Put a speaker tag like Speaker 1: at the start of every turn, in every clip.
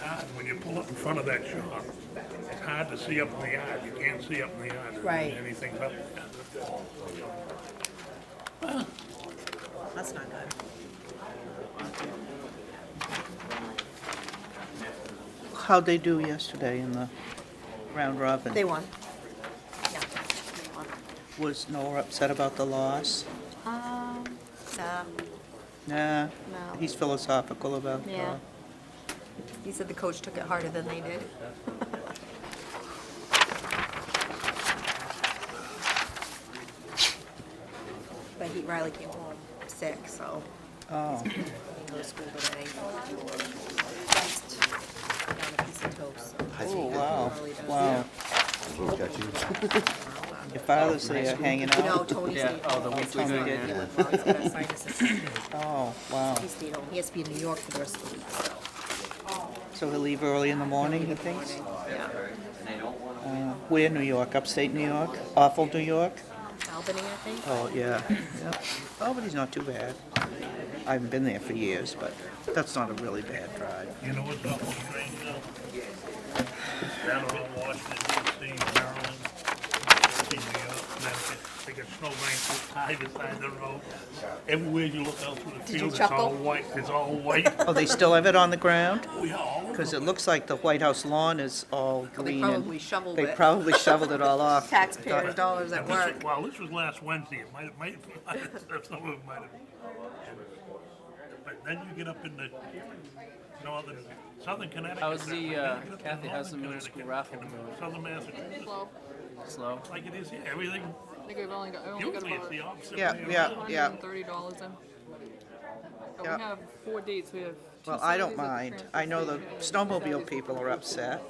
Speaker 1: hard when you pull up in front of that shop. It's hard to see up in the yard. You can't see up in the yard.
Speaker 2: Right.
Speaker 1: Anything's up there.
Speaker 2: That's not good.
Speaker 3: How'd they do yesterday in the round robin?
Speaker 2: They won. Yeah.
Speaker 3: Was Noah upset about the loss?
Speaker 2: Um, nah,
Speaker 3: Nah,
Speaker 2: No.
Speaker 3: he's philosophical about
Speaker 2: yeah.
Speaker 3: the
Speaker 4: Oh.
Speaker 2: He said the coach took it harder than they did. But he, Riley came home sick, so
Speaker 3: Oh,
Speaker 2: he goes to school today. Just Down a piece of toast. so
Speaker 3: oh, wow,
Speaker 2: Riley does.
Speaker 3: wow. Your father's there hanging
Speaker 2: No,
Speaker 3: out?
Speaker 2: Tony
Speaker 4: Yeah,
Speaker 2: stayed
Speaker 4: oh, the
Speaker 2: home.
Speaker 4: week's
Speaker 2: Tony's
Speaker 4: gonna
Speaker 2: not
Speaker 4: get-
Speaker 2: feeling well. He's got a sinuses.
Speaker 3: Oh, wow.
Speaker 2: He stayed home. He has to be in New York for the rest of the week, so.
Speaker 3: So he'll leave early in the morning, he thinks?
Speaker 2: Yeah.
Speaker 3: Uh, Where, New York, upstate New York, awful New York?
Speaker 2: Albany, I think.
Speaker 3: Oh, yeah, yeah. Oh, but he's not too bad. I haven't been there for years, but that's not a really bad drive.
Speaker 1: You know what's awful strange now? Down around Washington DC, Maryland, D.C., New York, Connecticut, they got snowbanks this high beside the road. Everywhere you look out through the
Speaker 2: you
Speaker 1: field, it's all
Speaker 2: chuckle?
Speaker 1: white, it's all white.
Speaker 3: Oh, they still have it on the ground?
Speaker 1: We are all over
Speaker 3: Because
Speaker 1: the
Speaker 3: it looks like the White House lawn is all
Speaker 2: They
Speaker 3: green
Speaker 2: probably
Speaker 3: and
Speaker 2: shoveled
Speaker 3: they
Speaker 2: it.
Speaker 3: probably shoveled it all off.
Speaker 2: Taxpayers' dollars at
Speaker 1: This was-
Speaker 2: work.
Speaker 1: Well, this was last Wednesday, it might, it might, some of it might have. But then you get up in the northern, southern Connecticut.
Speaker 4: How's the, uh,
Speaker 1: Then you get up in
Speaker 4: Kathy, how's the
Speaker 1: northern
Speaker 4: middle school
Speaker 1: Connecticut,
Speaker 4: raffle
Speaker 1: in
Speaker 4: going?
Speaker 1: Southern Massachusetts,
Speaker 5: Well,
Speaker 4: Slow.
Speaker 1: like it is here, everything,
Speaker 5: I think we've only got, I only got
Speaker 1: usually it's
Speaker 5: about
Speaker 1: the opposite.
Speaker 3: Yeah,
Speaker 1: way
Speaker 3: yeah.
Speaker 1: around.
Speaker 5: hundred and thirty dollars in. But
Speaker 3: Yeah.
Speaker 5: we have four dates, we have two
Speaker 3: Well, I don't
Speaker 5: Saturdays at the
Speaker 3: mind.
Speaker 5: transfer
Speaker 3: I know the
Speaker 5: station.
Speaker 3: snowmobile people are upset,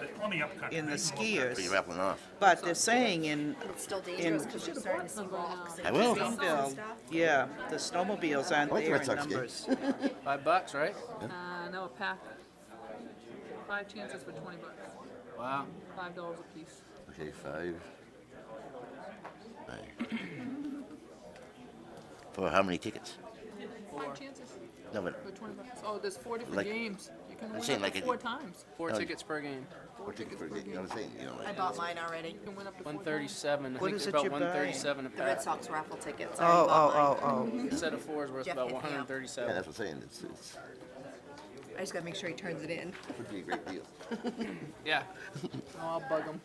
Speaker 1: There's plenty upcountry.
Speaker 3: in the
Speaker 1: There's more
Speaker 3: skiers.
Speaker 6: You're rapping off.
Speaker 3: but they're saying in
Speaker 2: It's still dangerous because you're starting to see rocks. and
Speaker 6: I will.
Speaker 2: stuff.
Speaker 3: Greenville, yeah, the snowmobiles aren't
Speaker 6: Like the
Speaker 3: there
Speaker 6: Red
Speaker 3: in
Speaker 6: Sox game.
Speaker 3: numbers.
Speaker 4: Five bucks, right?
Speaker 5: Uh, no, a pack. Five chances for twenty bucks,
Speaker 4: Wow.
Speaker 5: five dollars a piece.
Speaker 6: Okay, five. Aye. For how many tickets?
Speaker 5: Five chances
Speaker 6: No, but
Speaker 5: for twenty bucks. Oh, there's four different
Speaker 6: Like-
Speaker 5: games. You can win
Speaker 6: saying,
Speaker 5: up
Speaker 6: like
Speaker 5: to
Speaker 6: a-
Speaker 5: four times.
Speaker 4: Four
Speaker 6: Oh, you-
Speaker 4: tickets per game.
Speaker 6: what ticket for you know what I'm saying? You know,
Speaker 2: I
Speaker 6: like,
Speaker 2: bought mine already.
Speaker 5: You can win up to four
Speaker 4: One
Speaker 5: times.
Speaker 4: thirty-seven. I
Speaker 3: What
Speaker 4: think
Speaker 3: is
Speaker 4: it's
Speaker 3: it
Speaker 4: about
Speaker 3: you're
Speaker 4: one thirty-seven a
Speaker 2: The Red
Speaker 4: pack.
Speaker 2: Sox raffle tickets. I
Speaker 3: Oh,
Speaker 2: already bought
Speaker 3: oh,
Speaker 2: mine.
Speaker 3: oh, oh.
Speaker 4: A set of four is worth
Speaker 2: Jeff
Speaker 4: about
Speaker 2: hit me
Speaker 4: one
Speaker 2: up.
Speaker 4: hundred
Speaker 6: yeah,
Speaker 4: thirty-seven.
Speaker 6: that's what I'm saying. It's it's
Speaker 3: oh.
Speaker 2: I just gotta make sure he turns it in.
Speaker 6: would be a great deal.
Speaker 4: Yeah. Oh, I'll bug them.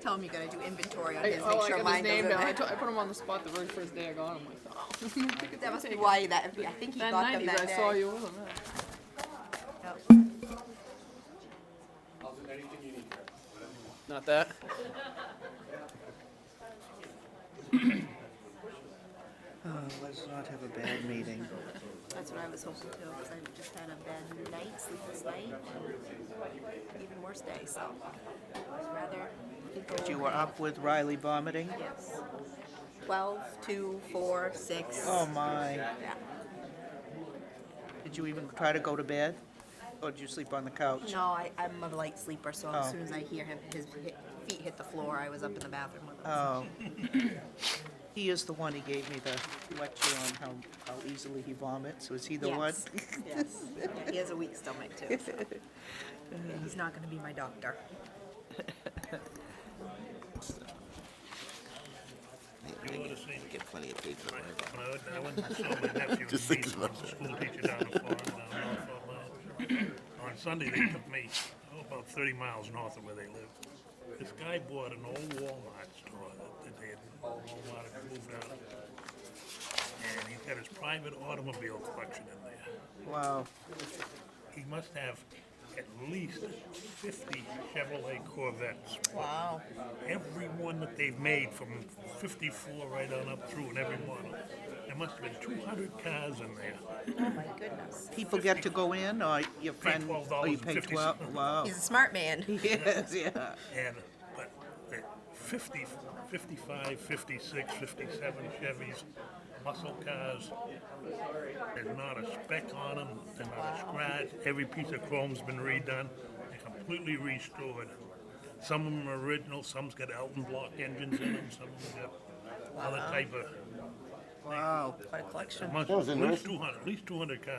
Speaker 2: Tell him you gotta do inventory on
Speaker 5: I,
Speaker 2: his,
Speaker 5: oh,
Speaker 2: make
Speaker 5: I
Speaker 2: sure
Speaker 5: got his
Speaker 2: mine
Speaker 5: name down. I,
Speaker 2: doesn't.
Speaker 5: t- I put him on the spot the very first day I got him. I'm like, oh.
Speaker 2: That must be why that, I think he
Speaker 5: That
Speaker 2: got them
Speaker 5: nineties,
Speaker 2: that
Speaker 5: I saw
Speaker 2: day.
Speaker 5: you with him. yeah.
Speaker 2: Yep.
Speaker 4: Not that.
Speaker 3: Uh, Let's not have a bad meeting.
Speaker 2: That's what I was hoping too, because I just had a bad night, sleepless night, and even worse day, so. I'd rather.
Speaker 3: But you were up with Riley vomiting?
Speaker 2: Yes. Twelve, two, four, six.
Speaker 3: Oh, my.
Speaker 2: Yeah.
Speaker 3: Did you even try to go to bed? Or did you sleep on the couch?
Speaker 2: No, I, I'm a light sleeper, so
Speaker 3: Oh.
Speaker 2: as soon as I hear him, his hi- feet hit the floor, I was up in the bathroom with him.
Speaker 3: Oh. He is the one, he gave me the lecture on how, how easily he vomits. Was he the one?
Speaker 2: Yes. yes. Yeah, he has a weak stomach too. So. Yeah, he's not going to be my doctor.
Speaker 1: You would've seen
Speaker 6: I get plenty of paper.
Speaker 1: Right. When I went- I went to saw my nephew,
Speaker 6: Just
Speaker 1: he's
Speaker 6: thinking
Speaker 1: a
Speaker 6: about that.
Speaker 1: school teacher down in Florida, down in North Fort Myers. On Sunday, they took me, oh, about thirty miles north of where they live. This guy bought an old Walmart store that- that they had, Walmart had moved out. And he's got his private automobile collection in there.
Speaker 3: Wow.
Speaker 1: He must have at least fifty Chevrolet Corvettes.
Speaker 2: Wow.
Speaker 1: Every one that they've made from fifty-four right on up through and every model. There must have been two hundred cars in there.
Speaker 2: Oh my goodness.
Speaker 3: People get to go in, or your friend, or you pay
Speaker 1: $12.50.
Speaker 3: twelve, wow.
Speaker 2: He's a smart man.
Speaker 3: Yes, yeah.
Speaker 1: And, but the 50, 55, 56, 57 Chevys, muscle cars, there's not a speck on them, they're not a scratch. Every piece of chrome's been redone, they're completely restored. Some of them are original, some's got Elton block engines in them, some of them got other type of.
Speaker 3: Wow.
Speaker 2: What a collection.
Speaker 1: At
Speaker 6: That was
Speaker 1: least
Speaker 6: interesting.
Speaker 1: 200, at least 200 cars.